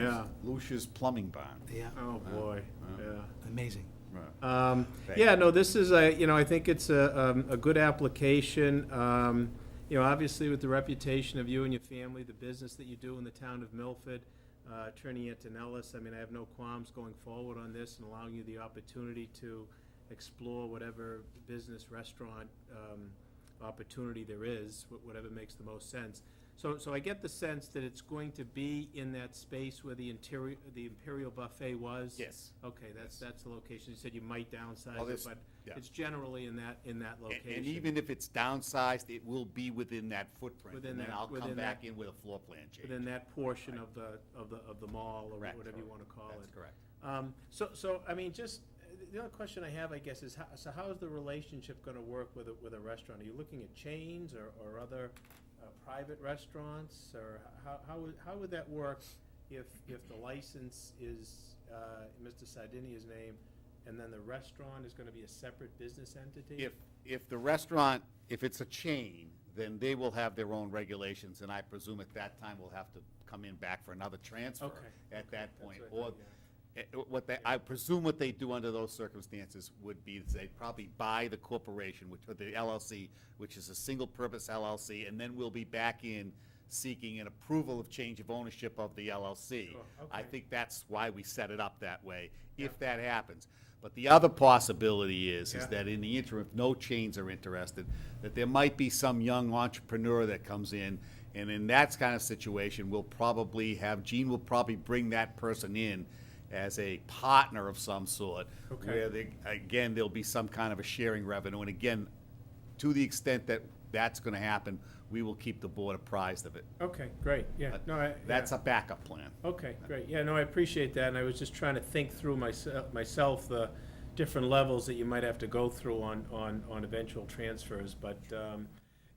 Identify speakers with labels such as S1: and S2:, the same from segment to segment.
S1: Yeah, Lucia's plumbing barn.
S2: Yeah,
S3: Oh, boy, yeah.
S2: amazing.
S1: Right.
S3: Um,
S1: Thank
S3: Yeah, no, this is a, you know, I think it's a, um, a good application. Um, You know, obviously with the reputation of you and your family, the business that you do in the town of Milford, uh, Attorney Antonellis, I mean, I have no qualms going forward on this and allowing you the opportunity to explore whatever business, restaurant, um, opportunity there is, wh- whatever makes the most sense. So, so I get the sense that it's going to be in that space where the interior, the Imperial Buffet was.
S1: Yes.
S3: Okay, that's, that's the location. You said you might downsize
S1: Well,
S3: it,
S1: this-
S3: but
S1: yeah.
S3: it's generally in that, in that
S1: And-
S3: location.
S1: And even if it's downsized, it will be within that footprint,
S3: Within
S1: and then
S3: that-
S1: I'll come
S3: within that-
S1: back in with a floor plan change.
S3: Within that portion of the, of the, of the mall, or
S1: Correct.
S3: whatever you want to call it.
S1: That's correct.
S3: Um, So, so, I mean, just, uh, the other question I have, I guess, is how, so how is the relationship going to work with, a- with a restaurant? Are you looking at chains or, or other uh, private restaurants? Or how, how, would- how would that work if, if the license is uh, Mr. Sardinia's name, and then the restaurant is going to be a separate business entity?
S1: If, if the restaurant, if it's a chain, then they will have their own regulations, and I presume at that time we'll have to come in back for another transfer
S3: Okay,
S1: at that
S3: that's
S1: point.
S3: what I
S1: Or,
S3: thought,
S1: eh, what they, I presume what they do under those circumstances would be they probably buy the corporation, which, or the LLC, which is a single-purpose LLC, and then we'll be back in seeking an approval of change of ownership of the LLC.
S3: Sure,
S1: I
S3: okay.
S1: think think that's why we set it up that way, if that happens. But the other possibility is, is
S3: Yeah.
S1: that in the interim, if no chains are interested, that there might be some young entrepreneur that comes in, and in that kind of situation, we'll probably have, Gene will probably bring that person in as a partner of some sort.
S3: Okay.
S1: Where they, again, there'll be some kind of a sharing revenue, and again, to the extent that that's gonna happen, we will keep the board apprised of it.
S3: Okay, great, yeah,
S1: But
S3: no, I.
S1: That's
S3: yeah.
S1: a backup plan.
S3: Okay, great. Yeah, no, I appreciate that, and I was just trying to think through myself, myself, the different levels that you might have to go through on, on, on eventual transfers, but, um,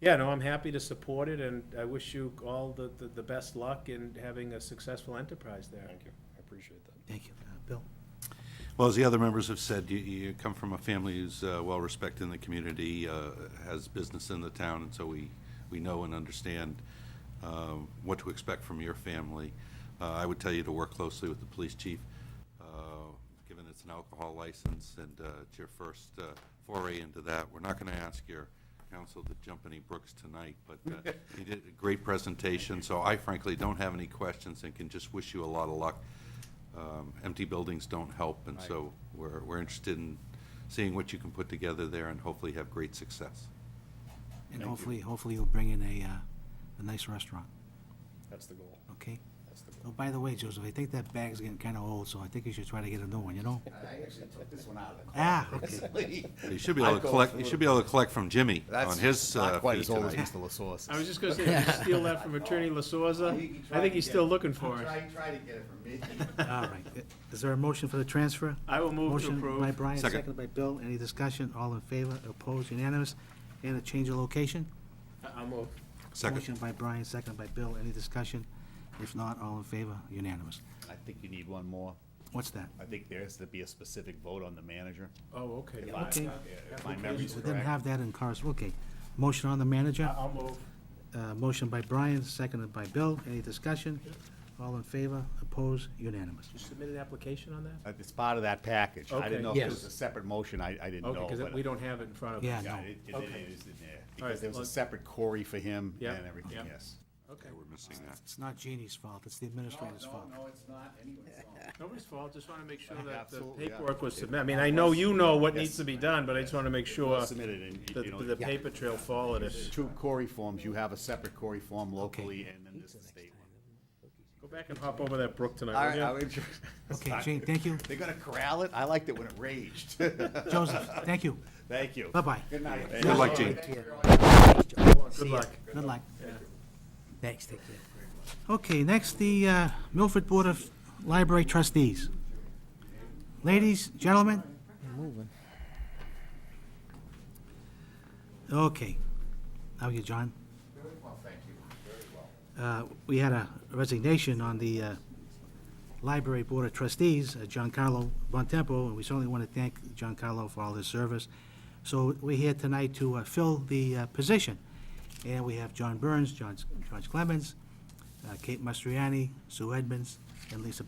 S3: yeah, no, I'm happy to support it, and I wish you all the, the, the best luck in having a successful enterprise there.
S4: Thank you, I appreciate that.
S2: Thank you. Uh, Bill?
S5: Well, as the other members have said, you, you come from a family who's uh, well-respected in the community, uh, has business in the town, and so we, we know and understand um, what to expect from your family. Uh, I would tell you to work closely with the police chief, uh, given it's an alcohol license and uh, it's your first uh, foray into that. We're not going to ask your counsel to jump any brooks tonight, but uh, you did a great presentation, so I frankly don't have any questions and can just wish you a lot of luck um, empty buildings don't help, and so we're, we're interested in seeing what you can put together there and hopefully have great success.
S2: And
S5: Thank you.
S2: hopefully, hopefully you'll bring in a, uh, a nice restaurant,
S4: That's the goal,
S2: okay?
S4: that's the
S2: Oh,
S4: goal.
S2: by the way, Joseph, I think that bag's getting kinda old, so I think you should try to get a new one, you know?
S1: I actually took this one out of the
S2: Ah, okay.
S1: recently.
S5: You should be able
S1: I'd
S5: to
S1: go
S5: collect,
S1: for
S5: you
S1: a
S5: should be able to collect from Jimmy on
S1: That's
S5: his uh,
S1: Not quite
S5: fee
S1: as old as
S5: tonight.
S1: Mr. LaSource.
S3: I was just gonna say, did you steal that from Attorney LaSorza? I think he's still looking for it.
S1: Try, try to get it from me.
S2: All right. Is there a motion for the transfer?
S3: I will move to
S2: Motion by
S3: approve.
S2: Brian,
S5: Second.
S2: seconded by Bill. Any discussion? All in favor? Opposed? Unanimous? And a change of location?
S3: I- I'll move.
S5: Second,
S2: Motion by Brian, seconded by Bill. Any discussion? If not, all in favor? Unanimous.
S1: I think you need one more.
S2: What's that?
S1: I think there has to be a specific vote on the manager.
S3: Oh, okay.
S1: If I-
S2: Okay.
S1: If my memory's
S2: We didn't
S1: correct.
S2: have that in cars. Okay. Motion on the manager?
S3: I- I'll move.
S2: Uh, Motion by Brian, seconded by Bill. Any discussion? All in favor? Opposed? Unanimous.
S3: You submit an application on that?
S1: Uh, It's part of that package. I
S3: Okay.
S1: didn't know if it
S2: Yes.
S1: was a separate motion. I, I didn't know.
S3: Okay, because
S1: but-
S3: we don't have it in front of us.
S2: Yeah,
S1: Yeah,
S2: no.
S1: it, it-
S3: Okay.
S1: it is in there.
S3: right,
S1: Because there was a
S3: let's-
S1: separate Corey for him
S3: Yeah,
S1: and everything,
S3: yeah.
S1: yes.
S3: Okay.
S5: we're missing that.
S2: It's not Jeannie's fault. It's the administrator's fault.
S1: it's not anyone's fault.
S3: Nobody's fault, just want to make sure
S1: Yeah,
S3: that the
S1: absolutely, yeah.
S3: paperwork was submitted. I mean, I know you know what needs
S1: Yes.
S3: to be done, but I just want to make sure that
S1: Submitted and, you know.
S3: the paper trail followed it.
S1: Two Corey forms, you have a separate Corey form locally, and then there's the state one.
S3: Go back and hop over that brook
S1: All
S3: tonight,
S1: right, I
S3: will you?
S1: would.
S2: Okay, Jane, thank you.
S1: They're gonna corral it? I liked it when it raged.
S2: Joseph, thank you.
S1: Thank you.
S2: Bye-bye.
S1: Good night.
S5: Good luck, Gene.
S3: Good luck.
S2: Good luck. Thanks, take care. Okay, next, the uh, Milford Board of Library Trustees. Ladies, gentlemen? Okay. How are you, John? Very well, thank you, very well. We had a resignation on the uh, Library Board of Trustees, uh, Giancarlo Bontempo, and we certainly want to thank Giancarlo for all his service. So we're here tonight to uh, fill the uh, position. And we have John Burns, John John Clemens, uh, Kate Mastriani, Sue Edmonds, and Lisa